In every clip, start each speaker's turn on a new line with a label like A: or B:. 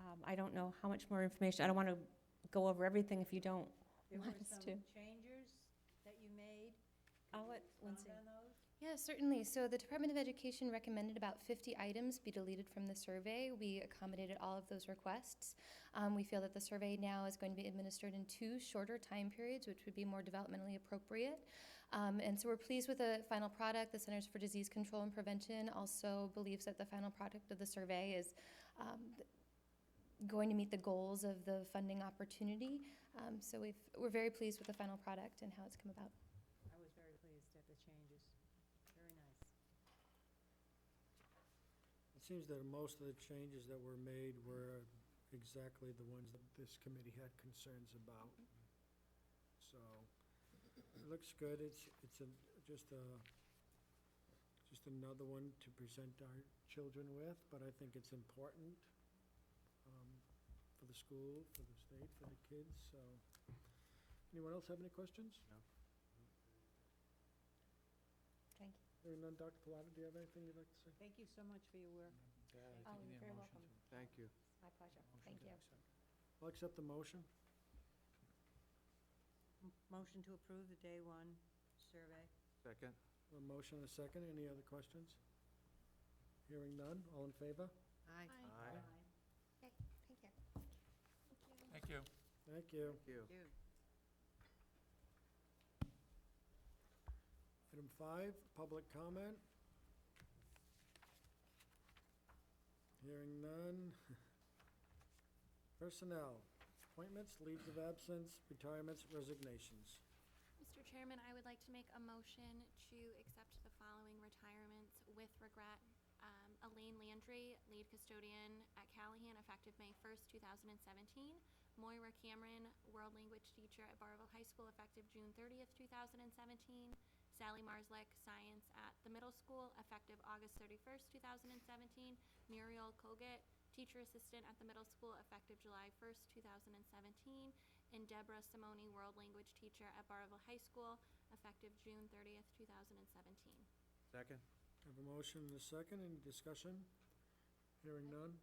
A: Um, I don't know how much more information, I don't want to go over everything if you don't.
B: There were
A: Want us
B: some
A: to-
B: changes that you made.
A: I'll
B: Could you
A: let Lindsay-
B: Expound on those?
C: Yeah, certainly. So the Department of Education recommended about 50 items be deleted from the survey. We accommodated all of those requests. Um, we feel that the survey now is going to be administered in two shorter time periods, which would be more developmentally appropriate. Um, and so we're pleased with the final product. The Centers for Disease Control and Prevention also believes that the final product of the survey is um, going to meet the goals of the funding opportunity. Um, so we've, we're very pleased with the final product and how it's come about.
B: I was very pleased at the changes. Very nice.
D: It seems that most of the changes that were made were exactly the ones that this committee had concerns about. So, it looks good, it's, it's a, just a, just another one to present our children with, but I think it's important, um, for the school, for the state, for the kids, so. Anyone else have any questions?
C: Thank you.
D: Hearing none, Dr. Pilata, do you have anything you'd like to say?
B: Thank you so much for your work.
C: Oh, you're very welcome.
E: Thank you.
C: My pleasure. Thank you.
D: I'll accept the motion.
B: M- Motion to approve the day one survey.
E: Second?
D: A motion and a second. Any other questions? Hearing none. All in favor?
B: Aye.
E: Aye.
C: Thank you.
F: Thank you.
D: Thank you.
E: Thank you.
B: You.
D: Item five, public comment. Hearing none. Personnel, appointments, leaves of absence, retirements, resignations.
G: Mr. Chairman, I would like to make a motion to accept the following retirements with regret. Um, Elaine Landry, lead custodian at Callahan, effective May 1st, 2017. Moira Cameron, world language teacher at Barville High School, effective June 30th, 2017. Sally Marslick, science at the middle school, effective August 31st, 2017. Muriel Colgate, teacher assistant at the middle school, effective July 1st, 2017. And Deborah Simone, world language teacher at Barville High School, effective June 30th, 2017.
E: Second?
D: Have a motion and a second. Any discussion? Hearing none.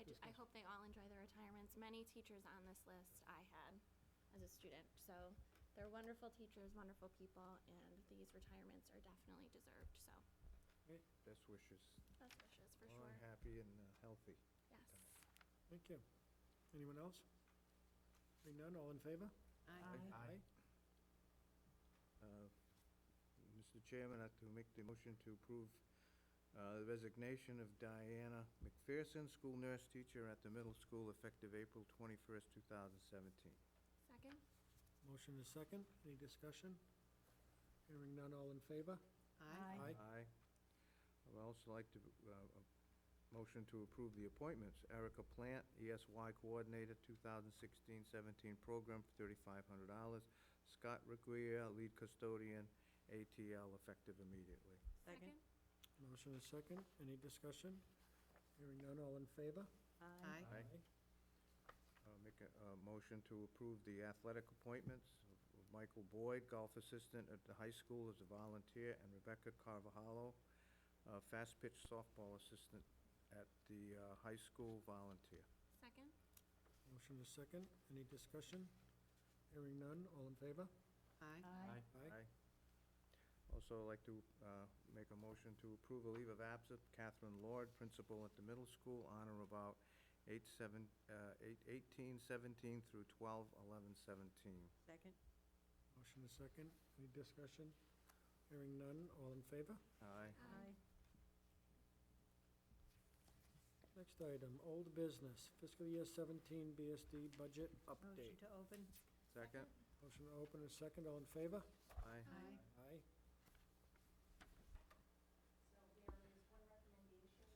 G: I, ju- I hope they all enjoy their retirements. Many teachers on this list I had as a student, so they're wonderful teachers, wonderful people, and these retirements are definitely deserved, so
E: Best wishes.
G: best wishes for
E: Long,
G: sure.
E: happy, and uh, healthy.
G: Yes.
D: Thank you. Anyone else? Hearing none. All in favor?
B: Aye.
E: Uh, Mr. Chairman, I have to make the motion to approve uh, the resignation of Diana McPherson, school nurse teacher at the middle school, effective April 21st, 2017.
G: Second?
D: Motion and a second. Any discussion? Hearing none. All in favor?
B: Aye.
D: Aye.
E: Aye. I would also like to, uh, uh, motion to approve the appointments. Erica Plant, ESY Coordinator, 2016-17 Program, $3,500. Scott Requia, Lead Custodian, ATL, effective immediately.
B: Second?
D: Motion is second. Any discussion? Hearing none, all in favor?
B: Aye.
E: Aye. I'll Uh, make a, a motion to approve the athletic appointments of- of Michael Boyd, golf assistant at the high school as a volunteer, and Rebecca Carvajalo, uh, fast pitch softball assistant at the, uh, high school, volunteer.
G: Second?
D: Motion is second. Any discussion? Hearing none, all in favor?
B: Aye.
E: Aye. Also, I'd like to uh, make a motion to approve a leave of absence, Catherine Lord, principal at the middle school, on or about 8 seven- uh, 8 18 17 through 12 11 17.
B: Second?
D: Motion is second. Any discussion? Hearing none, all in favor?
E: Aye.
G: Aye.
D: Next item, old business, fiscal year seventeen BSD budget
B: Motion
D: update.
B: to open?
E: Second?
D: Motion to open is second, all in favor?
E: Aye.
B: Aye.
D: Aye.
H: So there is one recommendation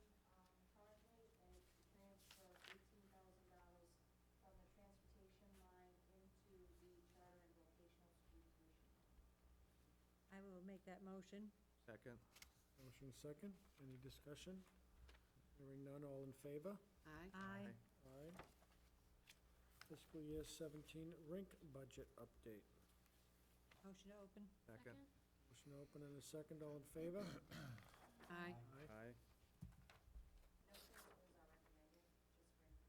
H: um, currently, and it's to transfer eighteen thousand dollars from the transportation line into the charter and vocational school commission.
B: I will make that motion.
E: Second?
D: Motion is second. Any discussion? Hearing none, all in favor?
B: Aye.
D: Aye. Fiscal year seventeen rink budget update.
B: Motion to open?
E: Second?
D: Motion to open in a second, all in favor?
B: Aye.
D: Aye.
E: Aye.